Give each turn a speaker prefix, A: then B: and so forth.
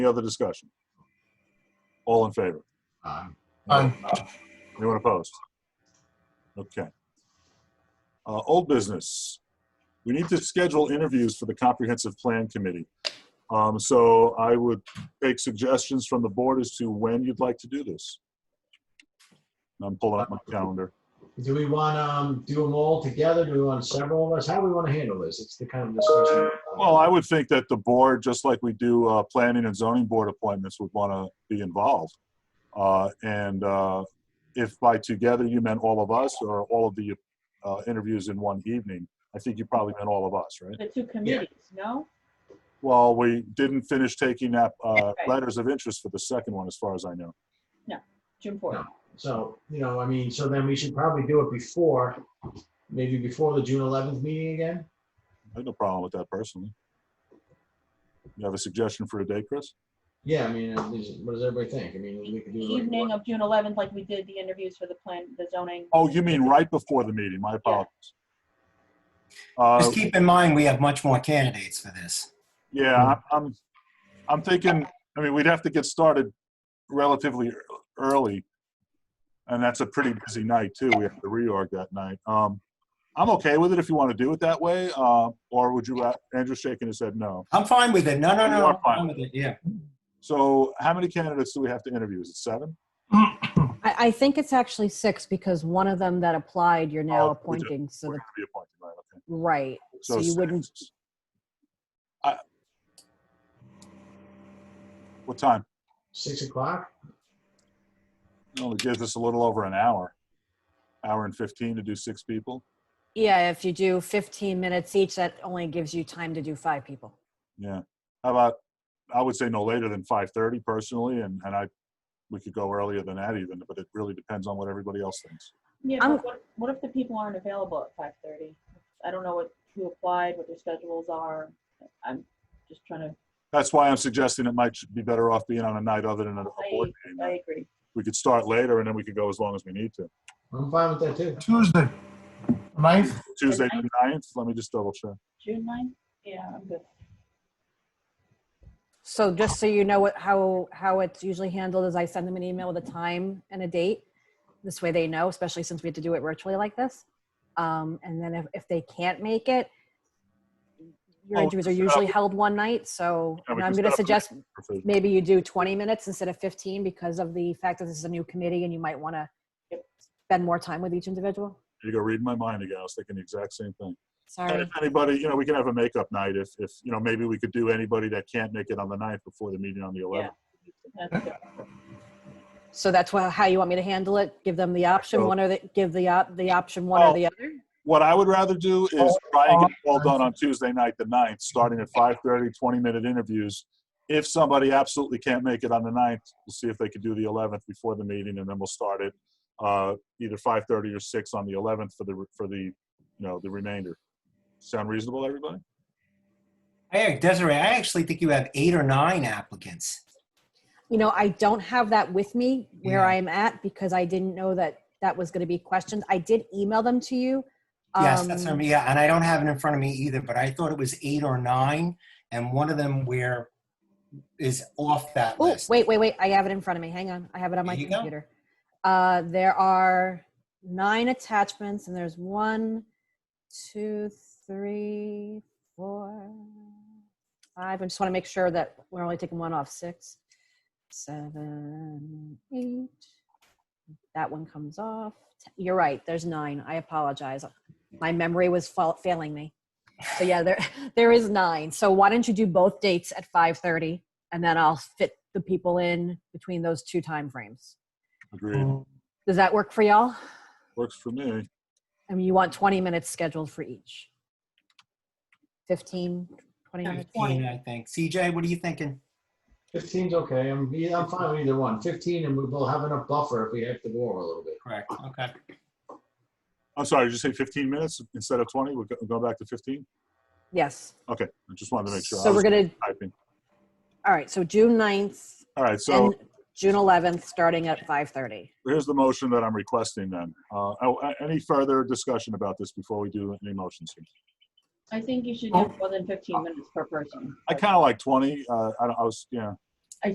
A: Any other discussion? All in favor?
B: Aye. Um,
C: Aye.
A: Anyone opposed? Okay. Uh, old business. We need to schedule interviews for the comprehensive plan committee. Um, so I would take suggestions from the board as to when you'd like to do this. And I'm pulling up my calendar.
B: Do we want to do them all together? Do we want several of us? How do we want to handle this? It's the kind of discussion.
A: Well, I would think that the board, just like we do, uh, planning and zoning board appointments would want to be involved. Uh, and, uh, if by together you meant all of us or all of the, uh, interviews in one evening, I think you probably meant all of us, right?
D: The two committees, no?
A: Well, we didn't finish taking up, uh,
D: Right.
A: letters of interest for the second one, as far as I know.
D: June fourth.
B: No. So, you know, I mean, so then we should probably do it before, maybe before the June 11th meeting again?
A: I have no problem with that personally. You have a suggestion for a day, Chris?
B: Yeah, I mean, uh, is- what does everybody think? I mean, we could do. like
D: Evening
B: one-
D: of June eleventh, like we did the interviews for the plan, the zoning.
A: Oh, you mean right before the meeting, my apologies. Uh,
E: Just keep in mind, we have much more candidates for this.
A: Yeah, I'm- I'm, I'm thinking, I mean, we'd have to get started relatively ear- early. And that's a pretty busy night too. We have to reorg that night. Um, I'm okay with it if you want to do it that way, uh, or would you, ra- Andrew's shaking his head no.
E: I'm fine with it. No, no,
A: You
E: no.
A: are
E: I'm
A: fine.
E: fine with it. Yeah.
A: So how many candidates do we have to interview? Is it seven?
F: I, I think it's actually six because one of them that applied, you're
A: Oh,
F: now
A: we did.
F: appointing, so
A: We're
F: the,
A: gonna be appointed, right, okay.
F: right. So you
A: six.
F: wouldn't,
A: I- What time?
B: Six o'clock?
A: Well, it gives us a little over an hour, hour and 15 to do six people.
F: yeah, if you do 15 minutes each, that only gives you time to do five people.
A: Yeah. How about, I would say no later than five thirty personally, and, and I, we could go earlier than that even, but it really depends on what everybody else thinks.
D: Yeah,
F: I'm-
D: but what, what if the people aren't available at five thirty? I don't know what, who applied, what their schedules are. I'm just trying to,
A: That's why I'm suggesting it might be better off being on a night other than a a board
D: I
A: meeting.
D: agree.
A: We could start later and then we could go as long as we need to.
B: I'm fine with that too.
C: Tuesday, ninth,
A: Tuesday the ninth, let me just double check.
D: June ninth? Yeah, I'm good.
F: So just so you know what, how, how it's usually handled is I send them an email with a time and a date. This way they know, especially since we had to do it virtually like this. Um, and then if, if they can't make it, your
A: Oh,
F: interviews are
A: set up-
F: usually held one night, so
A: Yeah, we
F: and
A: can
F: I'm
A: set
F: gonna
A: up a-
F: suggest
A: Provision.
F: maybe you do 20 minutes instead of 15 because of the fact that this is a new committee and you might want to
D: Yep.
F: spend more time with each individual?
A: You go reading my mind again. I was thinking the exact same thing. And
F: Sorry.
A: if anybody, you know, we can have a makeup night if, if, you know, maybe we could do anybody that can't make it on the ninth before the meeting on the eleventh.
D: That's good.
F: So that's wha- how you want me to handle it? Give them the option,
A: So-
F: one or the, give the, op- the option one or
A: Oh.
F: the other?
A: What I would rather do
F: Oh,
A: is try and get it all done on Tuesday night, the ninth, starting at 5:30, 20-minute interviews. If somebody absolutely can't make it on the ninth, we'll see if they could do the 11th before the meeting, and then we'll start it uh, either 5:30 or 6 on the 11th for the, for the, you know, the remainder. Sound reasonable, everybody?
E: Hey, Desiree, I actually think you have eight or nine applicants.
F: You know, I don't have that with me where
E: Yeah.
F: I'm at because I didn't know that that was going to be questioned. I did email them to you.
E: Yes, that's what I
F: um,
E: mean. Yeah, and I don't have it in front of me either, but I thought it was eight or nine, and one of them where is off that
F: Oh,
E: list.
F: wait, wait, wait. I have it in front of me. Hang on. I have it on my
E: There you go.
F: computer. Uh, there are nine attachments, and there's one, two, three, four, five. I just want to make sure that we're only taking one off. Six, seven, eight. That one comes off. T- You're right. There's nine. I apologize. My memory was fa- failing me. So yeah, there there is nine. So why don't you do both dates at five thirty? and then I'll fit the people in between those two timeframes.
A: Agreed.
F: Mm. Does that work for y'all?
A: Works for me.
F: I mean, you want 20 minutes scheduled for each. 15, 20 minutes?
E: Fifteen, I think. CJ, what are you thinking?
B: 15's okay. I'm, yeah, I'm fine with either one. 15 and we'll have enough buffer if we have to go over a little bit.
E: Correct. Okay.
A: I'm sorry, did you say 15 minutes instead of 20? We'll go- go back to 15?
F: Yes.
A: Okay, I just wanted to make sure. I
F: So we're
A: was
F: gonna,
A: typing.
F: all right, so June 9th
A: All right, so.
F: and June 11th, starting at 5:30.
A: here's the motion that I'm requesting then. Uh, oh, a- Any further discussion about this before we do any motions? here?
D: I think you should do more than fifteen minutes per person.
A: I kind of like 20, uh, I don't- I was, yeah,